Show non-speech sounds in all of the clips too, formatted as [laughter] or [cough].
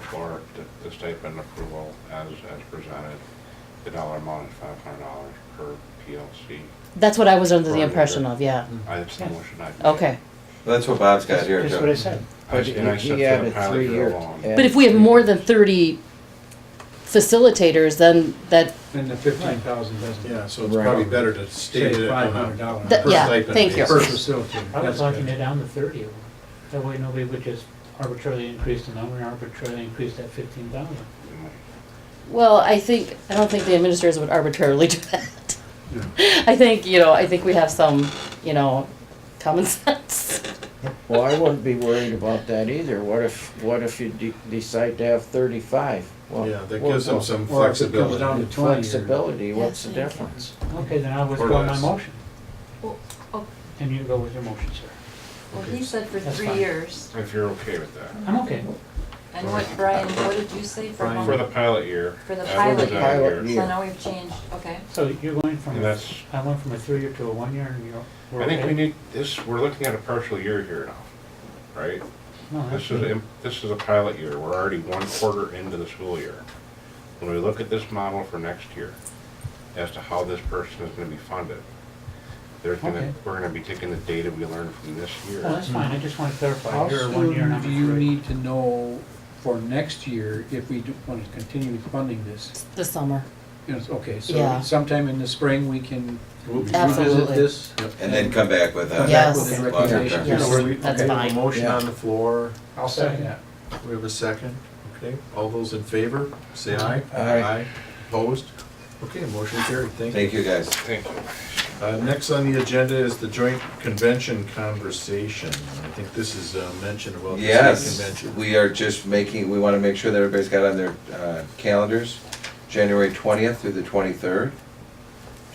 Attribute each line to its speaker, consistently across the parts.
Speaker 1: for it, the- the statement approval as, as presented. The dollar amount is five hundred dollars per PLC.
Speaker 2: That's what I was under the
Speaker 1: Right,
Speaker 2: impression
Speaker 1: right.
Speaker 2: of, yeah.
Speaker 1: I, that's the motion I made.
Speaker 2: Okay.
Speaker 3: That's what Bob's got here,
Speaker 4: That's what
Speaker 3: Joe.
Speaker 4: I said.
Speaker 1: I- And I said
Speaker 4: He- he
Speaker 1: for the
Speaker 4: added
Speaker 1: pilot
Speaker 4: three
Speaker 1: drill
Speaker 4: years.
Speaker 1: on.
Speaker 4: Yeah.
Speaker 2: But if we have more than thirty facilitators, then that,
Speaker 5: And the fifteen thousand doesn't.
Speaker 6: Yeah, so it's
Speaker 4: Right.
Speaker 6: probably better to state
Speaker 5: Say
Speaker 6: it
Speaker 5: five
Speaker 6: on
Speaker 5: hundred
Speaker 6: a
Speaker 5: dollars.
Speaker 2: Th-
Speaker 6: per
Speaker 2: yeah,
Speaker 6: stipend
Speaker 2: thank you.
Speaker 5: Per
Speaker 6: basis.
Speaker 5: facility.
Speaker 7: I was
Speaker 5: That's
Speaker 7: knocking
Speaker 5: good.
Speaker 7: it down to thirty of them. That way nobody would just arbitrarily increase the number and arbitrarily increase that fifteen thousand.
Speaker 2: well, I think, I don't think the administrators would arbitrarily [laughs] do that.
Speaker 5: No.
Speaker 2: I think, you know, I think we have some, you know, common [laughs] sense.
Speaker 4: Well, I wouldn't be worried about that either. What if, what if you de- decide to have thirty-five? Well,
Speaker 6: Yeah, that
Speaker 4: well,
Speaker 6: gives them
Speaker 4: well,
Speaker 6: Oh, some
Speaker 5: Or if it comes
Speaker 6: flexibility.
Speaker 5: down to twenty. or-
Speaker 4: Flexibility, what's the
Speaker 2: Yes, I agree.
Speaker 4: difference?
Speaker 7: Okay, then I'll
Speaker 6: Or
Speaker 7: withdraw my
Speaker 6: less.
Speaker 7: motion.
Speaker 8: Well, oh,
Speaker 7: And you go with your motion, sir.
Speaker 8: well, he said for
Speaker 7: That's
Speaker 8: three
Speaker 7: fine.
Speaker 8: years.
Speaker 1: If you're okay with that.
Speaker 7: I'm okay.
Speaker 8: And what, Brian, what did you say
Speaker 1: For
Speaker 8: for home?
Speaker 1: the pilot year.
Speaker 8: For the
Speaker 1: as
Speaker 8: pilot year.
Speaker 1: presented here.
Speaker 4: Pilot year.
Speaker 8: So now we've changed, okay.
Speaker 7: So you're going from,
Speaker 1: And that's-
Speaker 7: I went from a three-year to a one-year and you're, we're
Speaker 1: I think we
Speaker 7: okay?
Speaker 1: need, this, we're looking at a partial year here now, right?
Speaker 7: No, that's
Speaker 1: This is,
Speaker 7: good.
Speaker 1: a- this is a pilot year, we're already one quarter into the school year. When we look at this model for next year, as to how this person is gonna be funded, there's gonna,
Speaker 7: Okay.
Speaker 1: we're gonna be taking the data we learned from this year.
Speaker 7: Well, that's fine, I just want to
Speaker 5: How
Speaker 7: clarify, you're a one-year and
Speaker 5: soon
Speaker 7: I'm a
Speaker 5: do you
Speaker 7: three.
Speaker 5: need to know for next year if we do want to continue funding this?
Speaker 2: This summer.
Speaker 5: You know, it's- okay,
Speaker 2: Yeah.
Speaker 5: so sometime in the spring, we can
Speaker 6: We'll be-
Speaker 5: revisit
Speaker 2: Absolutely.
Speaker 5: this?
Speaker 3: And then come back with uh,
Speaker 5: Come
Speaker 3: a.
Speaker 5: back
Speaker 2: Yes.
Speaker 5: with the
Speaker 7: Okay.
Speaker 5: recommendations?
Speaker 2: Yeah.
Speaker 6: So we-
Speaker 2: That's
Speaker 6: okay, we have
Speaker 2: fine.
Speaker 6: a Motion
Speaker 5: Yeah.
Speaker 6: on the floor.
Speaker 7: I'll second that.
Speaker 6: We have a second. Okay, all those in favor, say aye.
Speaker 4: Aye.
Speaker 6: Opposed? Okay, motion carried. Thank you.
Speaker 3: Thank you, guys.
Speaker 1: Thank you.
Speaker 6: Uh, Next on the agenda is the joint convention conversation. I think this is uh, mentioned about the state
Speaker 3: Yes,
Speaker 6: convention.
Speaker 3: we are just making, we want to make sure that everybody's got on their uh, calendars, January 20th through the 23rd,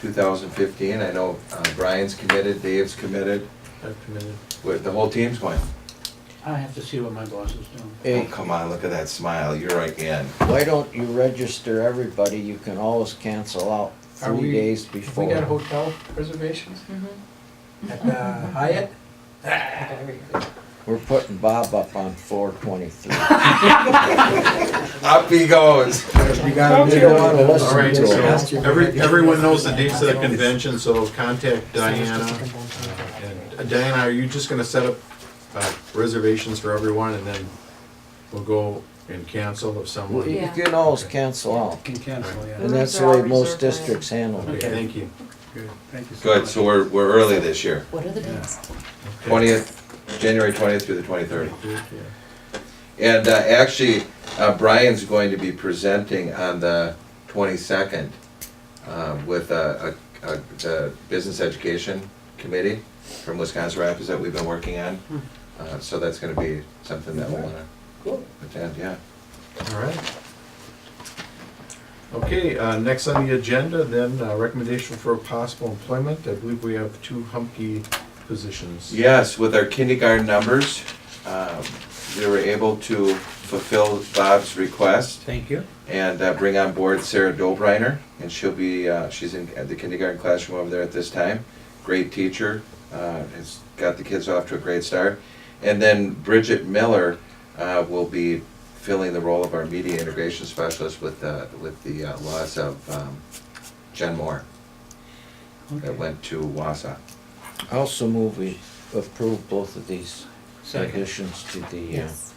Speaker 3: 2015. I know uh, Brian's committed, Dave's committed,
Speaker 6: I've committed.
Speaker 3: with- the whole team's going.
Speaker 7: I have to see what my boss is doing.
Speaker 3: Oh,
Speaker 4: Hey,
Speaker 3: come on, look at that smile, you're right in.
Speaker 4: why don't you register everybody? You can always cancel out
Speaker 5: Are
Speaker 4: three
Speaker 5: we-
Speaker 4: days
Speaker 5: If we got
Speaker 4: before.
Speaker 5: hotel reservations
Speaker 8: Mhm.
Speaker 2: Mm-hmm.
Speaker 5: at the Hyatt?
Speaker 4: We're putting Bob up on four
Speaker 2: [laughs]
Speaker 4: twenty-three.
Speaker 3: Up he goes.
Speaker 5: You
Speaker 4: Don't you wanna listen
Speaker 6: All right,
Speaker 4: to
Speaker 6: so
Speaker 4: us?
Speaker 6: every, everyone knows the
Speaker 5: [laughs]
Speaker 6: dates of the convention, so contact Diana. And uh, Diana, are you just gonna set up uh, reservations for everyone and then we'll go and cancel if
Speaker 4: Well,
Speaker 6: someone?
Speaker 4: You you
Speaker 8: Yeah.
Speaker 4: can always cancel out,
Speaker 5: Can cancel, yeah.
Speaker 4: and that's the way most districts handle it.
Speaker 6: Okay, thank you.
Speaker 5: Good, thank you so much.
Speaker 3: Good, so we're, we're early this year,
Speaker 2: What are the dates?
Speaker 3: 20th, January 20th through the 23rd.
Speaker 6: Yeah.
Speaker 3: And uh, actually, uh, Brian's going to be presenting on the 22nd uh, with uh, a- a- the Business Education Committee from Wisconsin Rapids that we've been working on. Uh, So that's going to be something that we'll want to attend, yeah.
Speaker 6: All right. Okay, uh, next on the agenda then, uh, recommendation for possible employment. I believe we have two Humke positions.
Speaker 3: Yes, with our kindergarten numbers, um, we were able to fulfill Bob's request.
Speaker 5: Thank you.
Speaker 3: and uh, bring on board Sarah Dolbriner, and she'll be, uh, she's in at the kindergarten classroom over there at this time. Great teacher, uh, has got the kids off to a great start. And then Bridget Miller uh, will be filling the role of our media integration specialist with, uh, with the uh, loss of um, Jen Moore that
Speaker 7: Okay.
Speaker 3: went to Wausau.
Speaker 4: I also move we approve both of these
Speaker 7: Second.
Speaker 4: additions to the uh,
Speaker 2: Yes.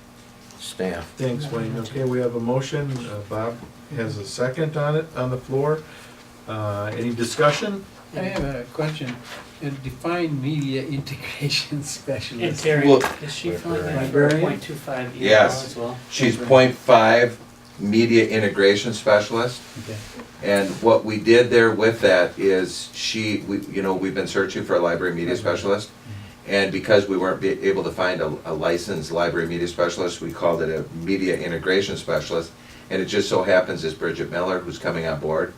Speaker 4: staff.
Speaker 6: Thanks, Wayne. Okay, we have a motion. Uh, Bob has a second on it, on the floor. Uh, Any discussion?
Speaker 5: I have a question, and define media [laughs] integration [laughs]
Speaker 7: And
Speaker 5: specialist.
Speaker 7: Terry,
Speaker 3: Well-
Speaker 7: is she filling that for
Speaker 5: Librarian?
Speaker 7: point two five ER
Speaker 3: Yes.
Speaker 7: as well?
Speaker 3: She's point five media integration specialist.
Speaker 5: Okay.
Speaker 3: And what we did there with that is she, we, you know, we've been searching for a library media specialist. And because we weren't be- able to find a, a licensed library media specialist, we called it a media integration specialist. And it just so happens is Bridget Miller, who's coming on board,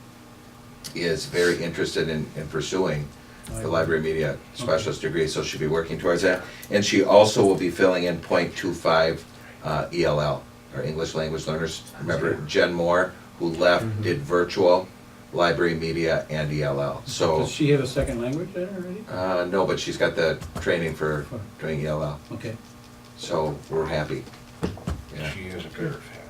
Speaker 3: is very interested in, in pursuing the library media specialist degree, so she'll be working towards that. And she also will be filling in point two five, uh, ELL, or English Language Learners. Remember Jen Moore, who left, did virtual, library media, and ELL, so.
Speaker 5: Does she have a second language there already?
Speaker 3: Uh, no, but she's got the training for doing E ELL,
Speaker 5: Okay.
Speaker 3: so we're happy. Yeah.
Speaker 1: She is a pair of